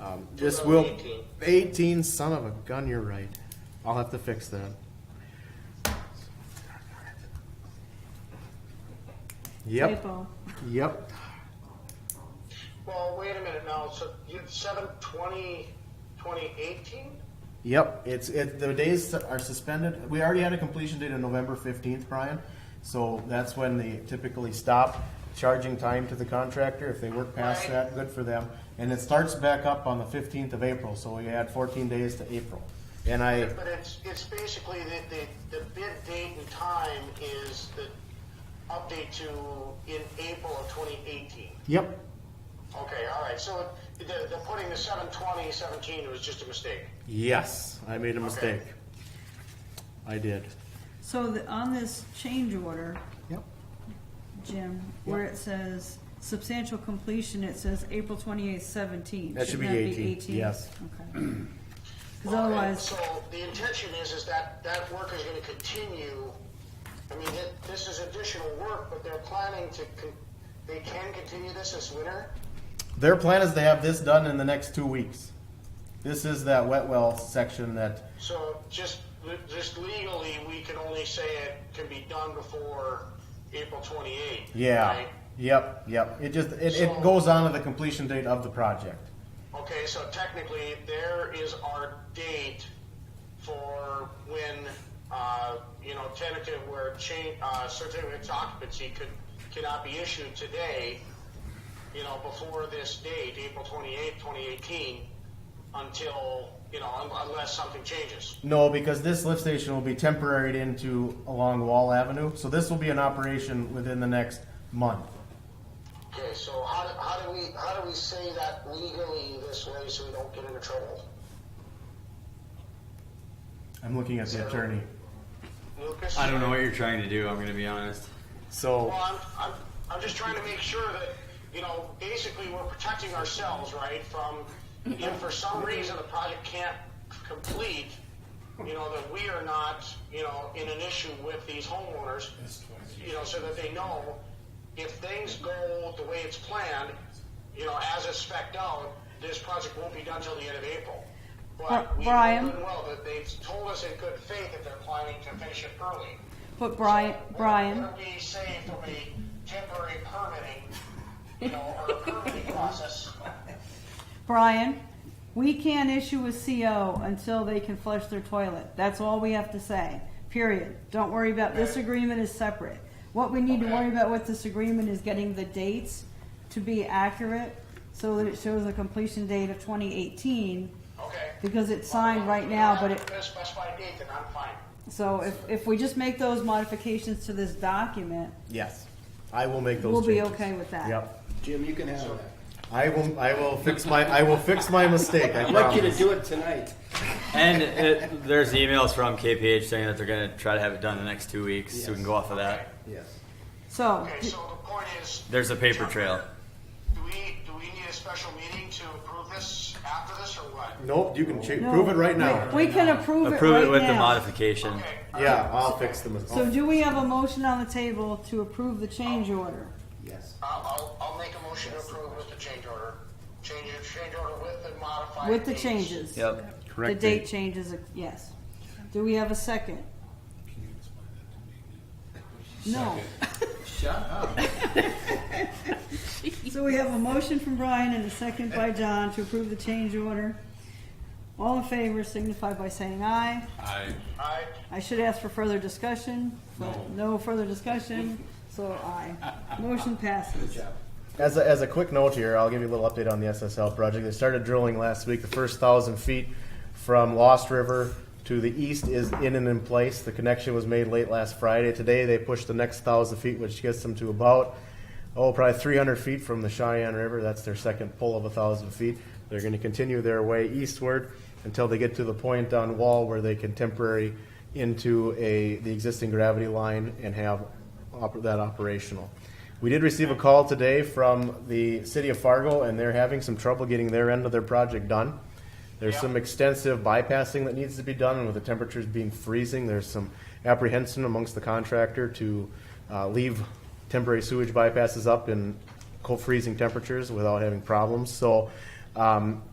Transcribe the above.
Um, this Around will, 18. 18, son of a gun, you're right. I'll have to fix that. Yep, Typo. yep. Well, wait a minute now, so you, seven twenty, twenty eighteen? Yep, it's it. The days are suspended. We already had a completion date of November fifteenth, Brian. So that's when they typically stop charging time to the contractor. If they work past Right. that, good for them. And it starts back up on the fifteenth of April. So we add fourteen days to April. And I But it's, it's basically the, the, the bid date and time is the update to in April of twenty eighteen. yep, Okay, all right, so the, the putting the seven twenty seventeen was just a mistake. yes, I made a mistake. I did. So the, on this change order, Yep. Jim, where it says substantial completion, it says April twenty-eighth seventeen. That should be 18, yes. Okay. Cause Okay, otherwise, So the intention is, is that, that work is gonna continue, I mean, it- this is additional work, but they're planning to, con- they can continue this this winter? Their plan is to have this done in the next two weeks. This is that wet well section that. So just, just legally, we can only say it can be done before April twenty-eighth, Yeah. right? Yep. Yep. It just it, So- it goes on to the completion date of the project. Okay, so technically, there is our date for when, uh, you know, tentative where change, uh, certificate of occupancy could, cannot be issued today, you know, before this date, April twenty-eighth, twenty eighteen, until, you know, un- unless something changes. No, because this lift station will be temporaried into along Wall Avenue, so this will be in operation within the next month. Okay, so how do, how do we, how do we say that legally this way so we don't get into trouble? I'm looking at the attorney. Lucas? I don't know what you're trying to do. I'm gonna be honest. So, Well, I'm, I'm, I'm just trying to make sure that, you know, basically we're protecting ourselves, right, from, if for some reason the project can't complete, you know, that we are not, you know, in an issue with these homeowners, you know, so that they know if things go the way it's planned, you know, as it's spec'd out, this project won't be done till the end of April. But we know Brian? good and well that they've told us in good faith that they're planning to finish it early. but Brian, Brian, Would we say if there'll be temporary permitting, you know, or permitting process? Brian, we can't issue a CO until they can flush their toilet. That's all we have to say, period. Don't worry about, this agreement is separate. What we need to worry about with this agreement is getting the dates to be accurate so that it shows a completion date of twenty eighteen, Okay. because it's signed right now, but it, If specified date, then I'm fine. so if, if we just make those modifications to this document, yes, I will make those we'll be changes. okay with that. Yep. Jim, you can have that. I will, I will fix my, I will fix my mistake, I I'd like you to promise. do it tonight. And it, there's emails from KPH saying that they're gonna try to have it done in the next two weeks, so we can go off of that. Yes. So, Okay, so the point is, do There's a paper trail. we, do we need a special meeting to approve this after this or what? Nope, you can cha- no, prove it right now. We we can approve it right now. Approve it with the modification. Okay. Yeah, I'll fix the So mistake. do we have a motion on the table to approve the change order? Yes. I'll, I'll, I'll make a motion to approve with the change order. Change, change order with the modified. With the dates. changes? Yep. The date changes, yes. Do we have a second? No. Shut up. So we have a motion from Brian and a second by John to approve the change order. All in favor signify by saying aye. I, I should ask for further discussion, but no further discussion, so aye. Motion passes. As a, as a quick note here, I'll give you a little update on the SSL project. They started drilling last week. The first thousand feet from Lost River to the east is in and in place. The connection was made late last Friday. Today they pushed the next thousand feet, which gets them to about oh probably 300 feet from the Cheyenne River. That's their second pull of a thousand feet. They're going to continue their way eastward until they get to the point on Wall where they can temporary into a the existing gravity line and have op- that operational. We did receive a call today from the city of Fargo, and they're having some trouble getting their end of their project done. There's some extensive bypassing that needs to be done, and with the temperatures being freezing, there's some apprehension amongst the contractor to uh, leave temporary sewage bypasses up in cold freezing temperatures without having problems. So um,